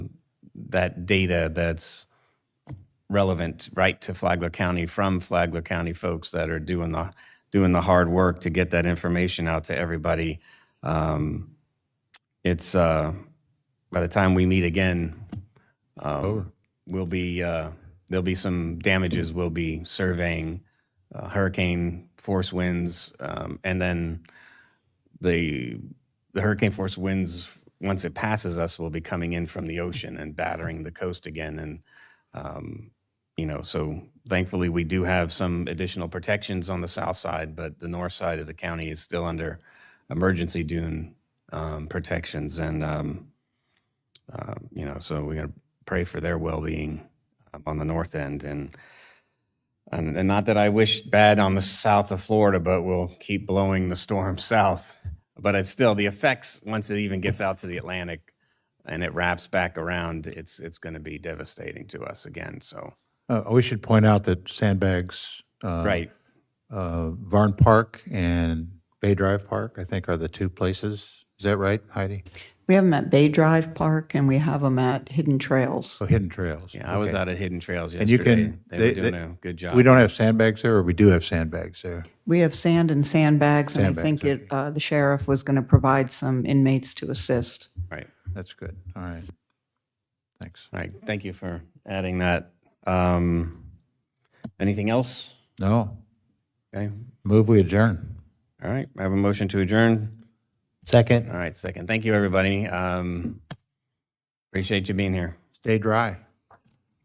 that data that's relevant right to Flagler County from Flagler County folks that are doing the doing the hard work to get that information out to everybody. Um, it's uh, by the time we meet again, um, we'll be uh, there'll be some damages. We'll be surveying uh, hurricane force winds, um, and then the the hurricane force winds once it passes us will be coming in from the ocean and battering the coast again and um, you know so thankfully we do have some additional protections on the south side but the north side of the county is still under emergency dune um, protections and um, uh, you know so we're going to pray for their well-being um, on the north end and and, and not that I wish bad on the south of Florida, but we'll keep blowing the storm south. But it's still the effects once it even gets out to the Atlantic and it wraps back around, it's it's going to be devastating to us again. So Uh, we should point out that Sandbags, uh, right, uh, Varn Park and Bay Drive Park, I think, are the two places. Is that right, Heidi? We have them at Bay Drive Park and we have them at Hidden Trails. So hidden trails. yeah, I was Okay. out at Hidden Trails you yesterday. can- they, they- were doing they- a good job. We don't have sandbags there, or we do have sandbags there. We have sand and sandbags, and I Sandbags, think it, uh, the sheriff was going to provide some inmates to assist. right. That's good. All right. Thanks. All right. Thank you for adding that. Um, anything else? No, Okay. move we adjourn. All right. I have a motion to adjourn. Second. All right, second. Thank you, everybody. Um, appreciate you being here. Stay dry.